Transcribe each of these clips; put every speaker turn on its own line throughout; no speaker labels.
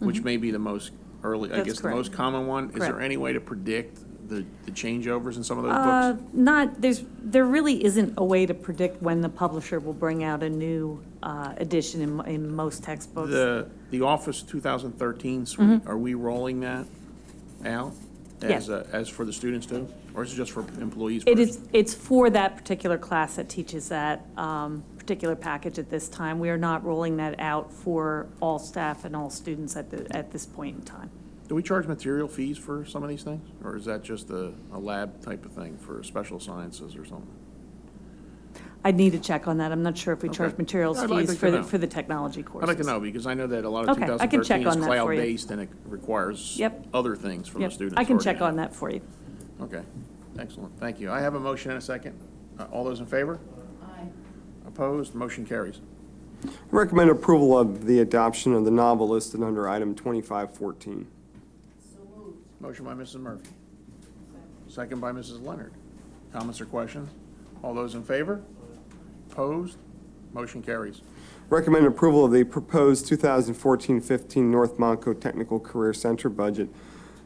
which may be the most early, I
Mm-hmm. That's
guess, the
correct.
most common one. Is there
Correct.
any way to predict the, the changeovers in some of those
Uh,
books?
Not, there's, there really isn't a way to predict when the publisher will bring out a new uh, edition in, in most textbooks.
The, the Office 2013 suite, are we rolling that out? As,
Mm-hmm. Yes.
a- as for the students too? Or is it just for employees
It
first?
is, it's for that particular class that teaches that um, particular package at this time. We are not rolling that out for all staff and all students at the, at this point in time.
Do we charge material fees for some of these things? Or is that just a, a lab type of thing for special sciences or something?
I'd need to check on that. I'm not sure if we charge
Okay.
materials
I'd like
fees
to
for, the
know.
for the technology courses.
I'd like to know, because I know that a lot of
Okay, I can
2013
check
is
on that for you.
cloud-based and it requires
Yep.
other things from the
Yep,
students.
I can
already
check
now.
on that for you.
Okay, excellent, thank you. I have a motion and a second. Uh, All those in favor? Aye. Opposed, motion carries.
Recommend approval of the adoption of the novel listed under item 2514.
Motion by Mrs. Murphy. Second by Mrs. Leonard. Comments or questions? All those in favor? Opposed, motion carries.
Recommend approval of the proposed 2014-15 North Monco Technical Career Center budget,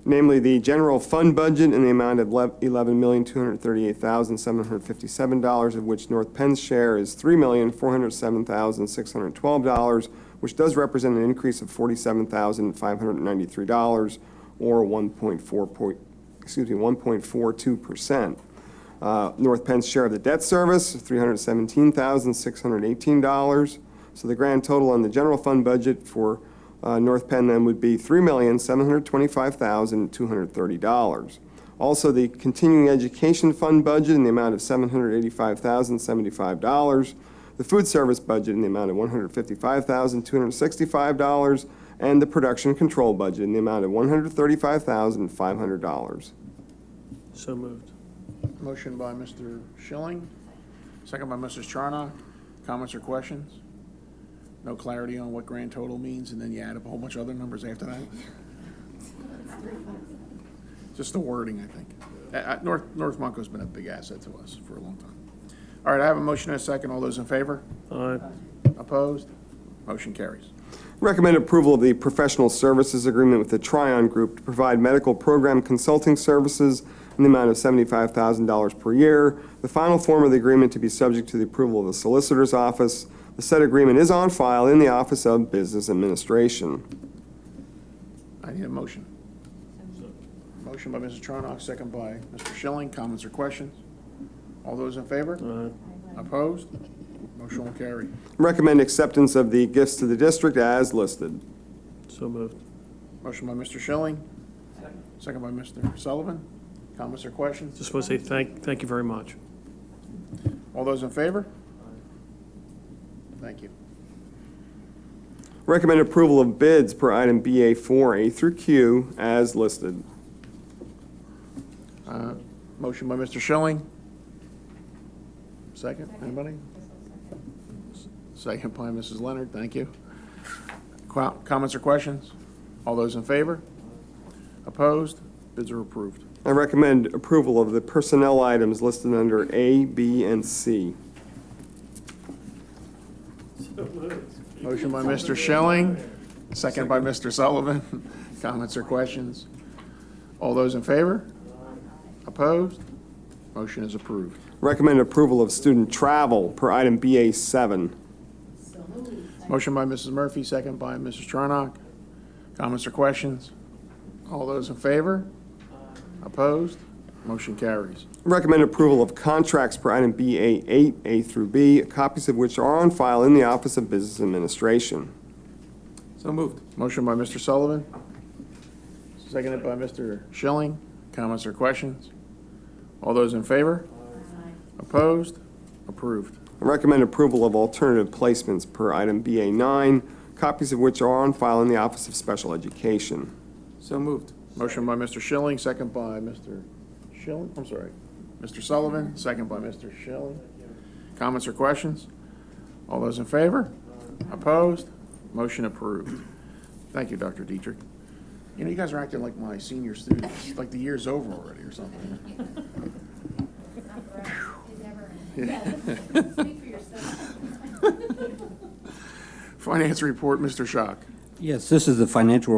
namely the general fund budget in the amount of lev- $11,238,757, of which North Penn's share is $3,407,612, which does represent an increase of $47,593, or 1.4, point- excuse me, 1.42%. Uh, North Penn's share of the debt service, $317,618. So the grand total on the general fund budget for uh, North Penn then would be $3,725,230. Also, the continuing education fund budget in the amount of $785,075. The food service budget in the amount of $155,265. And the production control budget in the amount of $135,500.
So moved.
Motion by Mr. Schilling, second by Mrs. Charnock. Comments or questions? No clarity on what grand total means, and then you add up a whole bunch of other numbers after that? Just the wording, I think. Uh, uh, North, North Monco's been a big asset to us for a long time. All right, I have a motion and a second. All those in favor?
Aye.
Opposed? Motion carries.
Recommend approval of the professional services agreement with the Tryon Group to provide medical program consulting services in the amount of $75,000 per year. The final form of the agreement to be subject to the approval of the Solicitor's Office. The said agreement is on file in the Office of Business Administration.
I need a motion. Motion by Mrs. Charnock, second by Mr. Schilling. Comments or questions? All those in favor?
Aye.
Opposed? Motion will carry.
Recommend acceptance of the gifts to the district as listed.
So moved.
Motion by Mr. Schilling. Second by Mr. Sullivan. Comments or questions?
Just want to say thank, thank you very much.
All those in favor? Thank you.
Recommend approval of bids per item BA4A through Q as listed.
Uh, Motion by Mr. Schilling. Second, anybody? Second by Mrs. Leonard, thank you. Qu- Comments or questions? All those in favor? Opposed? Bids are approved.
I recommend approval of the personnel items listed under A, B, and C.
Motion by Mr. Schilling, second by Mr. Sullivan. Comments or questions? All those in favor? Opposed? Motion is approved.
Recommend approval of student travel per item BA7.
Motion by Mrs. Murphy, second by Mrs. Charnock. Comments or questions? All those in favor? Opposed? Motion carries.
Recommend approval of contracts per item BA8, A through B, copies of which are on file in the Office of Business Administration.
So moved. Motion by Mr. Sullivan, seconded by Mr. Schilling. Comments or questions? All those in favor? Opposed? Approved.
Recommend approval of alternative placements per item BA9, copies of which are on file in the Office of Special Education.
So moved. Motion by Mr. Schilling, second by Mr. Schilling, I'm sorry, Mr. Sullivan, second by Mr. Schilling. Comments or questions? All those in favor? Opposed? Motion approved. Thank you, Dr. Dietrich. You know, you guys are acting like my senior students, like the year's over already or something.
Speak for yourself.
Finance report, Mr. Schock.
Yes, this is the financial